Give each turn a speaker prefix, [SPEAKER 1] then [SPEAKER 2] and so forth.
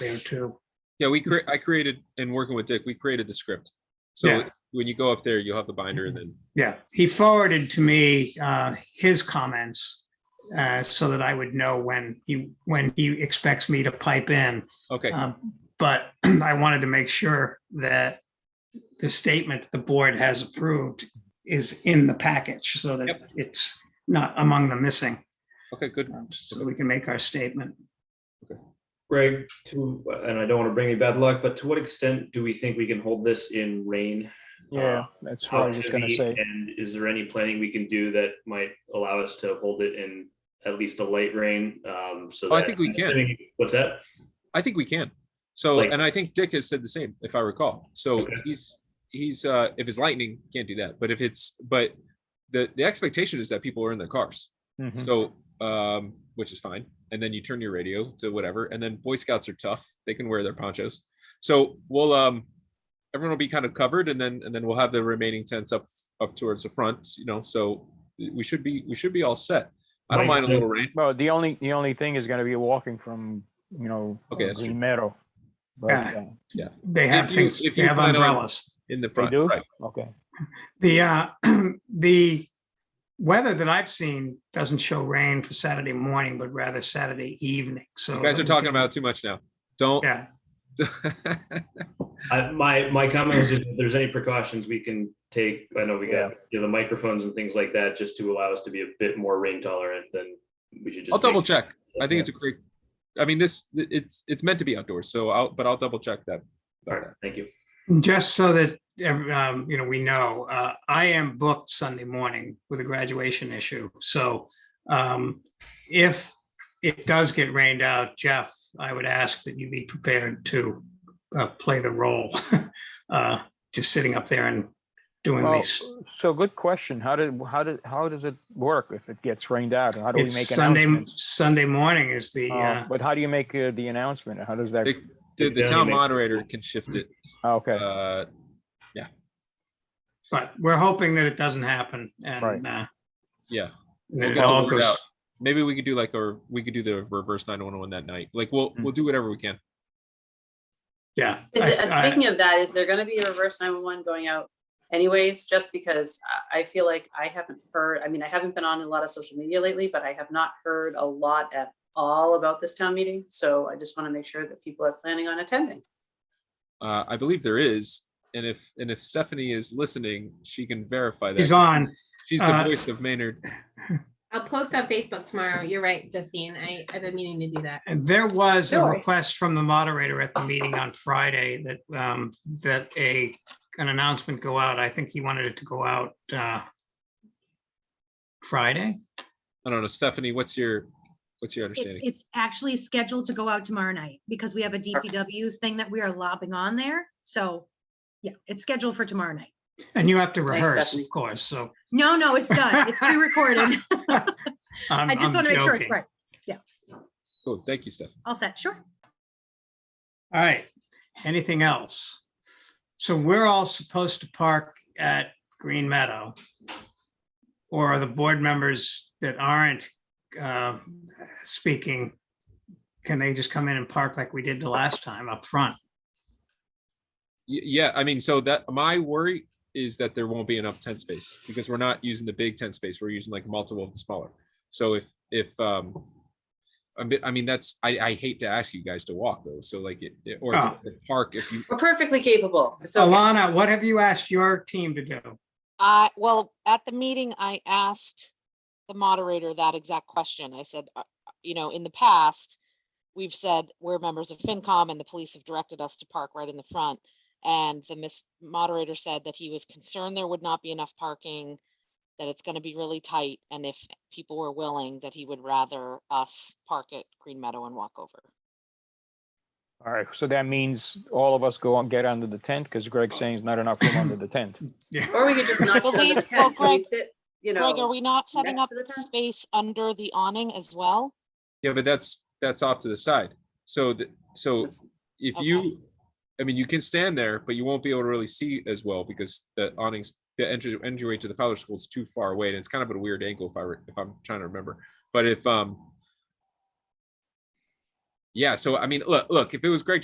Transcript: [SPEAKER 1] there too.
[SPEAKER 2] Yeah, we cre- I created and working with Dick, we created the script. So
[SPEAKER 1] Yeah.
[SPEAKER 2] when you go up there, you'll have the binder and
[SPEAKER 3] Mm-hmm.
[SPEAKER 2] then,
[SPEAKER 1] Yeah, he forwarded to me uh, his comments uh, so that I would know when he, when he expects me to pipe in.
[SPEAKER 2] okay,
[SPEAKER 3] Uh.
[SPEAKER 1] Um, But I wanted to make sure that the statement the board has approved is in the package so that
[SPEAKER 2] Yep.
[SPEAKER 1] it's not among the missing,
[SPEAKER 2] okay, good.
[SPEAKER 1] um, so that we can make our statement.
[SPEAKER 3] Greg, to, and I don't want to bring you bad luck, but to what extent do we think we can hold this in rain?
[SPEAKER 4] Yeah, that's what I
[SPEAKER 3] How
[SPEAKER 4] was gonna
[SPEAKER 3] heavy,
[SPEAKER 4] say.
[SPEAKER 3] And is there any planning we can do that might allow us to hold it in at least a light rain? Um, so
[SPEAKER 2] Oh, I
[SPEAKER 3] that-
[SPEAKER 2] think we can.
[SPEAKER 3] assuming- What's that?
[SPEAKER 2] I think we can. So,
[SPEAKER 3] Like-
[SPEAKER 2] and I think Dick has said the same, if I recall. So
[SPEAKER 3] Okay.
[SPEAKER 2] he's, he's, uh, if it's lightning, can't do that. But if it's, but the, the expectation is that people are in their cars.
[SPEAKER 4] Mhm.
[SPEAKER 2] So, um, which is fine. And then you turn your radio to whatever. And then Boy Scouts are tough. They can wear their ponchos. So we'll, um, everyone will be kind of covered and then, and then we'll have the remaining tents up, up towards the front, you know, so we should be, we should be all set. I don't mind a little rain.
[SPEAKER 4] Well, the only, the only thing is gonna be walking from, you know,
[SPEAKER 2] Okay,
[SPEAKER 4] uh,
[SPEAKER 2] that's true.
[SPEAKER 4] Green Meadow. But,
[SPEAKER 1] Yeah.
[SPEAKER 4] uh,
[SPEAKER 1] They have
[SPEAKER 2] you-
[SPEAKER 1] things,
[SPEAKER 2] if
[SPEAKER 1] they
[SPEAKER 2] you
[SPEAKER 1] have
[SPEAKER 2] plan on-
[SPEAKER 1] umbrellas.
[SPEAKER 2] In the front,
[SPEAKER 4] do?
[SPEAKER 2] right?
[SPEAKER 4] Okay,
[SPEAKER 1] The, uh, the weather that I've seen doesn't show rain for Saturday morning, but rather Saturday evening, so.
[SPEAKER 2] You guys are talking about it too much now. Don't.
[SPEAKER 1] Yeah,
[SPEAKER 3] I, my, my comment was just if there's any precautions we can take, I know we got, you know, the microphones and things like that, just to allow us to be a bit more rain tolerant than we should just.
[SPEAKER 2] I'll double
[SPEAKER 3] make-
[SPEAKER 2] check. I think it's a great, I mean, this, it's, it's meant to be outdoors, so I'll, but I'll double check that.
[SPEAKER 3] All right, thank you.
[SPEAKER 1] just so that, ev- um, you know, we know, uh, I am booked Sunday morning with a graduation issue, so, um, if it does get rained out, Jeff, I would ask that you be prepared to, uh, play the role, uh, just sitting up there and doing
[SPEAKER 4] well,
[SPEAKER 1] these.
[SPEAKER 4] so good question. How did, how did, how does it work if it gets rained out? How do we
[SPEAKER 1] It's
[SPEAKER 4] make
[SPEAKER 1] Sunday,
[SPEAKER 4] announcements?
[SPEAKER 1] Sunday morning is the, uh,
[SPEAKER 4] Um, But how do you make uh, the announcement? How does that, Ah,
[SPEAKER 2] It- The, the
[SPEAKER 3] Yeah,
[SPEAKER 2] town
[SPEAKER 3] you make-
[SPEAKER 2] moderator can shift it.
[SPEAKER 4] okay,
[SPEAKER 2] Uh,
[SPEAKER 1] But we're hoping that it doesn't happen
[SPEAKER 4] Right.
[SPEAKER 1] and uh,
[SPEAKER 2] yeah, We'll
[SPEAKER 1] that it
[SPEAKER 2] get the
[SPEAKER 1] all
[SPEAKER 2] word
[SPEAKER 1] goes.
[SPEAKER 2] out. maybe we could do like, or we could do the reverse nine one one that night. Like, we'll,
[SPEAKER 1] Hmm.
[SPEAKER 2] we'll do whatever we can.
[SPEAKER 1] Yeah.
[SPEAKER 5] Is,
[SPEAKER 1] I-
[SPEAKER 5] it- uh,
[SPEAKER 1] I-
[SPEAKER 5] speaking of that, is there gonna be a reverse nine-one-one going out anyways, just because I, I feel like I haven't heard, I mean, I haven't been on a lot of social media lately, but I have not heard a lot at all about this town meeting, so I just wanna make sure that people are planning on attending.
[SPEAKER 2] Uh, I believe there is, and if, and if Stephanie is listening, she can verify that.
[SPEAKER 1] He's on.
[SPEAKER 2] She's the
[SPEAKER 1] Uh,
[SPEAKER 2] voice of Maynard.
[SPEAKER 6] I'll post on Facebook tomorrow. You're right, Justine. I, I've been meaning to do that.
[SPEAKER 1] And there was a
[SPEAKER 5] No worries.
[SPEAKER 1] request from the moderator at the meeting on Friday that, um, that a, an announcement go out. I think he wanted it to go out uh, Friday.
[SPEAKER 2] I don't know, Stephanie, what's your, what's your
[SPEAKER 7] It's,
[SPEAKER 2] understanding?
[SPEAKER 7] it's actually scheduled to go out tomorrow night because we have a DPW thing that we are lobbing on there. So, yeah, it's scheduled for tomorrow night.
[SPEAKER 1] And you have to rehearse, of
[SPEAKER 5] Stephanie.
[SPEAKER 1] course, so.
[SPEAKER 7] No, no, it's done. It's pre-recorded. I
[SPEAKER 1] I'm-
[SPEAKER 7] just
[SPEAKER 1] I'm
[SPEAKER 7] want to make sure it's
[SPEAKER 1] joking.
[SPEAKER 7] right.
[SPEAKER 2] Cool, thank you, Stephanie.
[SPEAKER 7] All set, sure.
[SPEAKER 1] All right, anything else? So we're all supposed to park at Green Meadow. Or are the board members that aren't uh, speaking, can they just come in and park like we did the last time up front?
[SPEAKER 2] Y- Yeah, I mean, so that my worry is that there won't be enough tent space because we're not using the big tent space. We're using like multiple of the smaller. So if if um, a bit, I mean, that's I I hate to ask you guys to walk though. So like it it- or
[SPEAKER 1] Oh.
[SPEAKER 2] the the park if you
[SPEAKER 5] We're perfectly capable. It's okay.
[SPEAKER 1] Alana, what have you asked your team to do?
[SPEAKER 8] I, well, at the meeting, I asked the moderator that exact question. I said, uh, uh, you know, in the past, we've said we're members of FinCom and the police have directed us to park right in the front. And the mis- moderator said that he was concerned there would not be enough parking, that it's gonna be really tight, and if people were willing, that he would rather us park at Green Meadow and walk over.
[SPEAKER 4] all right. So that means all of us go and get under the tent because Greg's saying it's not enough room under the tent.
[SPEAKER 5] Or we could just not sit under the
[SPEAKER 8] Believe-
[SPEAKER 5] tent,
[SPEAKER 8] well,
[SPEAKER 5] Can we
[SPEAKER 8] Greg-
[SPEAKER 5] sit, you
[SPEAKER 8] Greg, are
[SPEAKER 5] know,
[SPEAKER 8] we not setting
[SPEAKER 5] next
[SPEAKER 8] up
[SPEAKER 5] to the tent?
[SPEAKER 8] space under the awning as well?
[SPEAKER 2] yeah, but that's that's off to the side. So the so
[SPEAKER 5] it's-
[SPEAKER 2] if
[SPEAKER 8] Okay.
[SPEAKER 2] you, I mean, you can stand there, but you won't be able to really see as well because the awnings, the entry entryway to the Fowler School is too far away, and it's kind of at a weird angle if I re- if I'm trying to remember. But if um, Yeah, so I mean, look, look, if it was Greg